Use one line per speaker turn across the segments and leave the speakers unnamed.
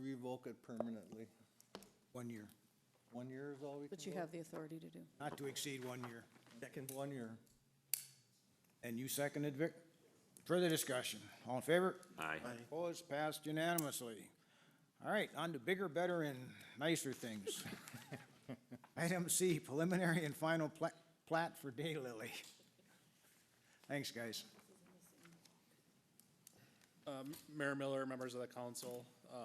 revoke it permanently.
One year,
One year is all we can
But you
vote?
have the authority to do.
not to exceed one year.
One year.
And you seconded, Vic? Further discussion, all in favor?
Aye.
Opposed, passed unanimously. All right, on to bigger, better, and nicer things. Item C, preliminary and final pla- plat for Daylily. Thanks, guys.
Um, Mayor Miller, members of the council, uh,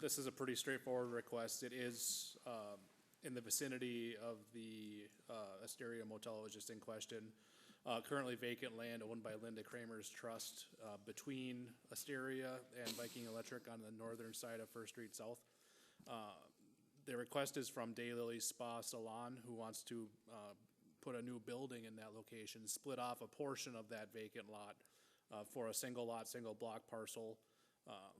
this is a pretty straightforward request. It is um, in the vicinity of the uh, Asteria Motel was just in question. Uh, Currently vacant land owned by Linda Kramer's Trust uh, between Asteria and Viking Electric on the northern side of First Street South. Uh, The request is from Daylily Spa Salon, who wants to uh, put a new building in that location, split off a portion of that vacant lot uh, for a single lot, single block parcel, um,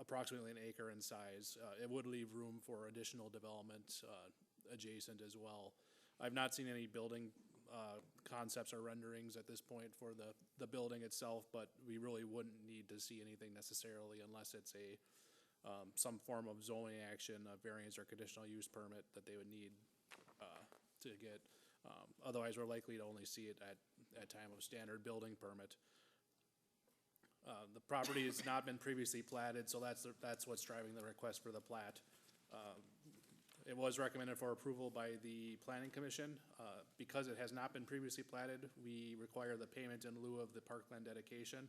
approximately an acre in size. Uh, It would leave room for additional development uh, adjacent as well. I've not seen any building uh, concepts or renderings at this point for the, the building itself, but we really wouldn't need to see anything necessarily unless it's a, um, some form of zoning action, a variance or conditional use permit that they would need, uh, to get. Um, otherwise, we're likely to only see it at, at time of standard building permit. Uh, the property has not been previously platted, so that's, the- that's what's driving the request for the plat. Um, It was recommended for approval by the planning commission. Uh, because it has not been previously platted, we require the payment in lieu of the parkland dedication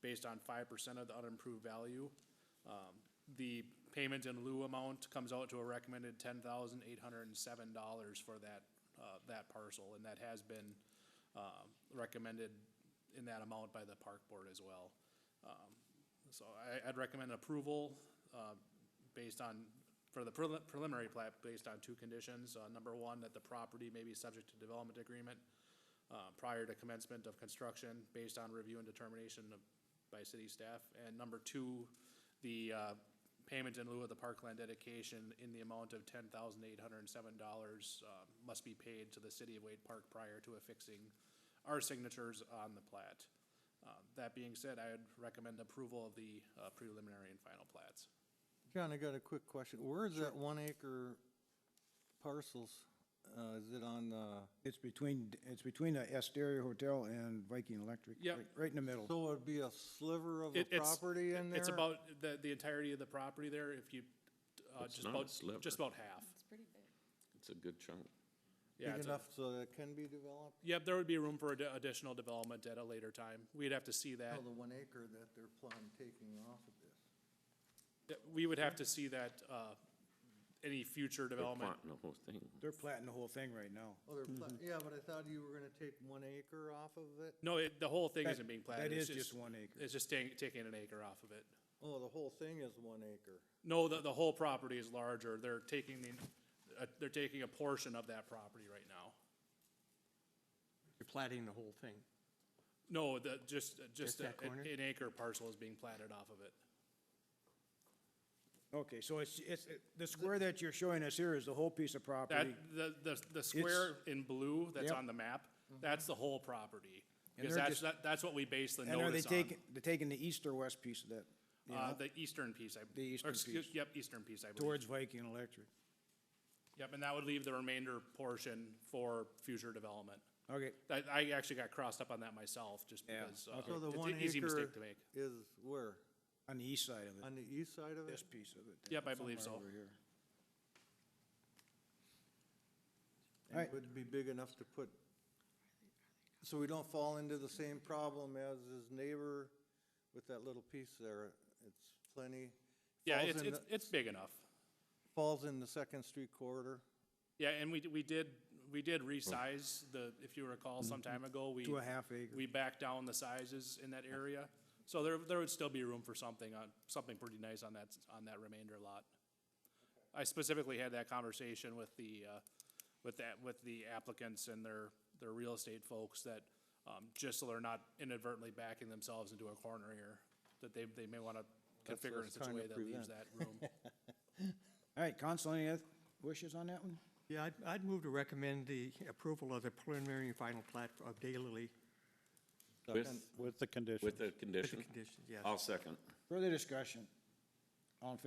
based on five percent of the unimproved value. Um, The payment in lieu amount comes out to a recommended ten thousand eight hundred and seven dollars for that, uh, that parcel, and that has been, uh, recommended in that amount by the park board as well. Um, So I, I'd recommend approval, uh, based on, for the prelim- preliminary plat, based on two conditions. Uh, number one, that the property may be subject to development agreement, uh, prior to commencement of construction based on review and determination of, by city staff. And number two, the, uh, payment in lieu of the parkland dedication in the amount of ten thousand eight hundred and seven dollars, uh, must be paid to the city of Wade Park prior to affixing our signatures on the plat. Uh, that being said, I would recommend approval of the, uh, preliminary and final plats.
John, I got a quick question. Where is that one acre parcels? Uh, is it on the,
It's between, it's between the Asteria Hotel and Viking Electric.
Yep.
right- Right in the middle.
so it'd be a sliver of a
It- it's-
property in there?
It's about the, the entirety of the property there, if you, uh,
It's
just
not a
about,
sliver.
just about half.
It's a good chunk.
Yeah,
Big
it's a-
enough so that it can be developed?
Yep, there would be room for ad- additional development at a later time. We'd have to see that.
Oh, the one acre that they're planning taking off of this.
That- We would have to see that, uh, any future
They're
development.
plotting the whole thing.
They're platting the whole thing right now.
Oh, they're, pla- yeah, but I thought you were gonna take one acre off of it?
No, it, the whole thing
That-
isn't being platted.
That
it's
is just one acre.
It's just taking, taking an acre off of it.
Oh, the whole thing is one acre.
No, the, the whole property is larger. They're taking the, uh, they're taking a portion of that property right now.
You're plating the whole thing.
No, the, just, uh, just
Just that
a- an
corner?
an acre parcel is being platted off of it.
Okay, so it's, it's, the square that you're showing us here is the whole piece of property.
That, the, the, the square in blue that's
Yep. Mm-hmm.
on the map, that's the whole property.
And
Because
they're
that's,
just-
that- that's what we base the
And are they
notice on.
taking, they're taking the east or west piece of that? you
Uh,
know,
the eastern piece, I.
The
or
eastern
excuse-
piece.
Yep, eastern piece, I believe.
Towards Viking Electric.
Yep, and that would leave the remainder portion for future development.
Okay,
I, I actually got crossed up on that myself, just
Yeah,
because, uh,
okay.
So the
it's
one
an easy
acre
mistake to make.
is where?
on the east side of it,
On the east side of it?
this piece of it.
Yep, I believe
somewhere
so.
over here.
And
Right.
Would it be big enough to put, so we don't fall into the same problem as his neighbor with that little piece there. It's plenty.
Yeah,
falls
it's,
in
it's,
the-
it's big enough.
Falls in the Second Street corridor.
Yeah, and we, d- we did, we
Oh.
did resize the, if you recall, some time ago, we.
To a half acre.
We backed down the sizes in that area, so there, there would still be room for something on, something pretty nice on that, s- on that remainder lot. I specifically had that conversation with the, uh, with that, with the applicants and their, their real estate folks that, um, just so they're not inadvertently backing themselves into a corner here, that they, they may wanna
That's what I
configure in
was
such a
trying to
way that leaves
prevent.
that room.
All right, council, any other wishes on that one?
Yeah, I'd, I'd move to recommend the approval of the preliminary and final plat of Daylily
With,
With the condition.
with the
with the
condition?
conditions, yes.
I'll second.
Further discussion? All in favor?